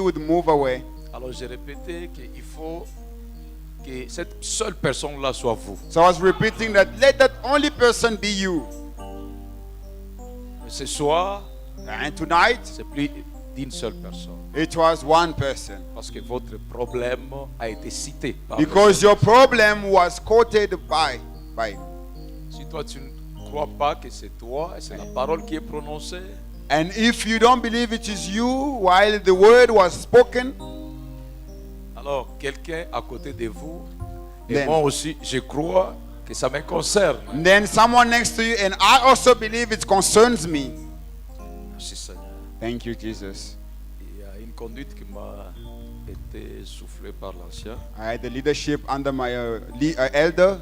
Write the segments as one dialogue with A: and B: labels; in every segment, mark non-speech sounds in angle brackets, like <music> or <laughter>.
A: would move away.
B: Alors j'ai répété qu'il faut que cette seule personne-là soit vous.
A: So I was repeating that let that only person be you.
B: Mais ce soir,
A: And tonight,
B: c'est plus d'une seule personne.
A: it was one person.
B: Parce que votre problème a été cité. par le
A: Because your problem was quoted by by
B: Seigneur. Si toi tu ne crois pas que c'est toi et c'est la parole qui est prononcée,
A: and if you don't believe it is you while the word was spoken,
B: alors quelqu'un à côté de vous, et
A: Amen.
B: moi aussi, je crois que ça me concerne.
A: then someone next to you and I also believe it concerns me.
B: Merci Seigneur.
A: Thank you, Jesus.
B: Il y a une conduite qui m'a été soufflée par l'ancien.
A: I had the leadership under my uh, le- uh, elder.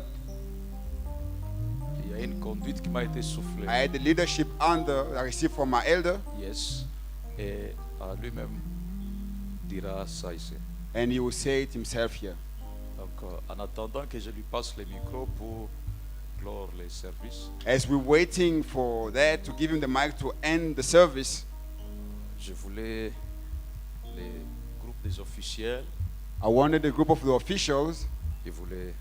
B: Il y a une conduite qui m'a été soufflée.
A: I had the leadership under I received from my elder,
B: Yes. Et euh, lui-même dira ça ici.
A: and he will say it himself here.
B: Donc, euh, en attendant que je lui passe le micro pour clore les services,
A: As we're waiting for that to give him the mic to end the service,
B: je voulais les groupes des officiels,
A: I wanted a group of the officials.
B: je voulais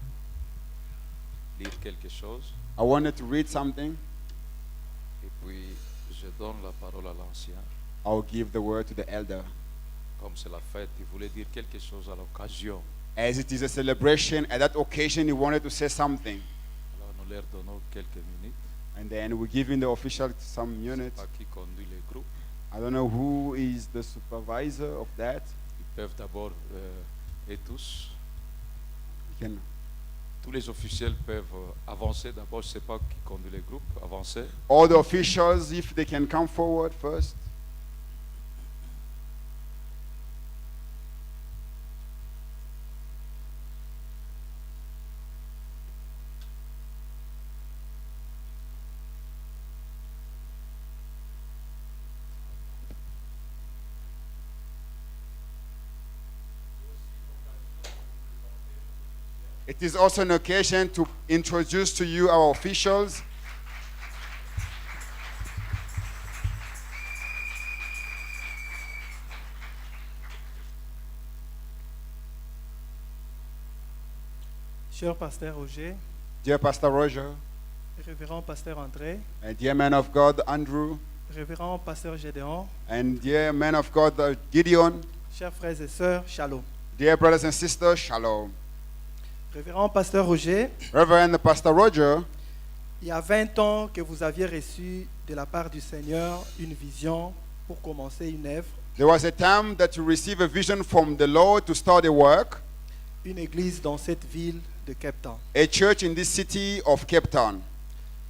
B: lire quelque chose.
A: I wanted to read something.
B: Et puis, je donne la parole à l'ancien.
A: I'll give the word to the elder.
B: Comme c'est la fête, il voulait dire quelque chose à l'occasion.
A: As it is a celebration, at that occasion he wanted to say something.
B: Alors, nous leur donnons quelques minutes.
A: And then we give him the official some
B: Je sais
A: units.
B: pas qui conduit les groupes.
A: I don't know who is the supervisor of that.
B: Ils peuvent d'abord, euh, et tous,
A: You can
B: Tous les officiels peuvent euh, avancer. D'abord, je ne sais pas qui conduit les groupes. Avancer.
A: all the officials if they can come forward first. It is also an occasion to introduce to you our officials.
C: Cher pasteur Roger,
A: Dear Pastor Roger,
C: révérend pasteur André,
A: and dear man of God Andrew,
C: révérend pasteur Gédéon,
A: and dear man of God uh, Gideon,
C: chers frères et sœurs, shalom.
A: dear brothers and sisters, shalom.
C: Révérend pasteur Roger,
A: Reverend Pastor Roger,
C: il y a 20 ans que vous aviez reçu de la part du Seigneur une vision pour commencer une œuvre,
A: there was a time that you received a vision from the Lord to start a work,
C: une église dans cette ville de Cape Town.
A: a church in this city of Cape Town.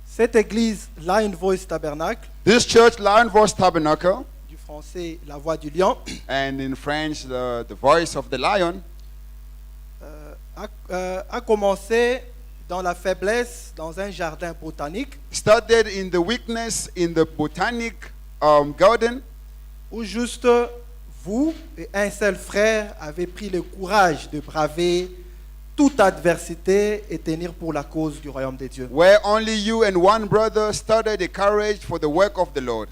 C: Cette église, Lion Voice Tabernacle,
A: This church, Lion Voice Tabernacle,
C: du français La Voix du Lion, <coughs>
A: and in French, the, the voice of the lion,
C: euh, a, euh, a commencé dans la faiblesse, dans un jardin botanique,
A: started in the weakness in the botanic um, garden,
C: où juste vous et un seul frère avez pris le courage de braver toute adversité et tenir pour la cause du royaume de Dieu.
A: where only you and one brother started the courage for the work of the Lord.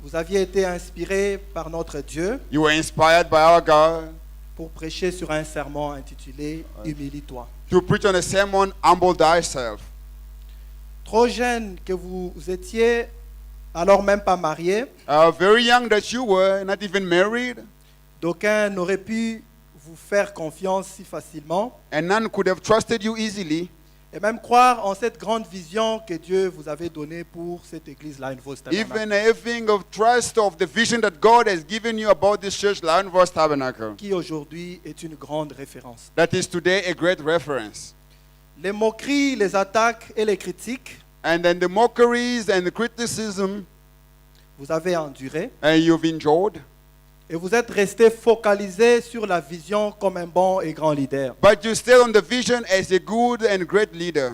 C: Vous aviez été inspiré par notre Dieu
A: You were inspired by our God
C: pour prêcher sur un serment intitulé Humilie-toi.
A: to preach on a sermon, Humble Thyself.
C: Trop jeune que vous étiez, alors même pas marié,
A: Uh, very young that you were, not even married,
C: d'aucuns n'auraient pu vous faire confiance si facilement
A: and none could have trusted you easily,
C: et même croire en cette grande vision que Dieu vous avait donnée pour cette église-là, une fausse
A: even having of trust of the vision that God has given you about this church, Lion Voice Tabernacle.
C: qui aujourd'hui est une grande référence.
A: That is today a great reference.
C: Les moqueries, les attaques et les critiques,
A: And then the mockeries and the criticism,
C: vous avez enduré
A: and you've endured,
C: et vous êtes resté focalisé sur la vision comme un bon et grand leader.
A: but you stayed on the vision as a good and great leader.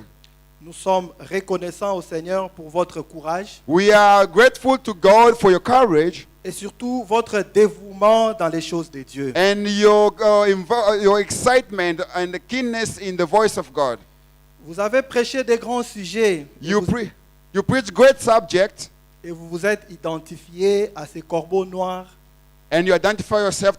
C: Nous sommes reconnaissants au Seigneur pour votre courage
A: We are grateful to God for your courage.
C: et surtout votre dévouement dans les choses de Dieu.
A: and your uh, invo- your excitement and the keenness in the voice of God.
C: Vous avez prêché des grands sujets et
A: You
C: vous,
A: pre- you preach great subject
C: et vous vous êtes identifié à ces corbeaux noirs
A: and you identify yourself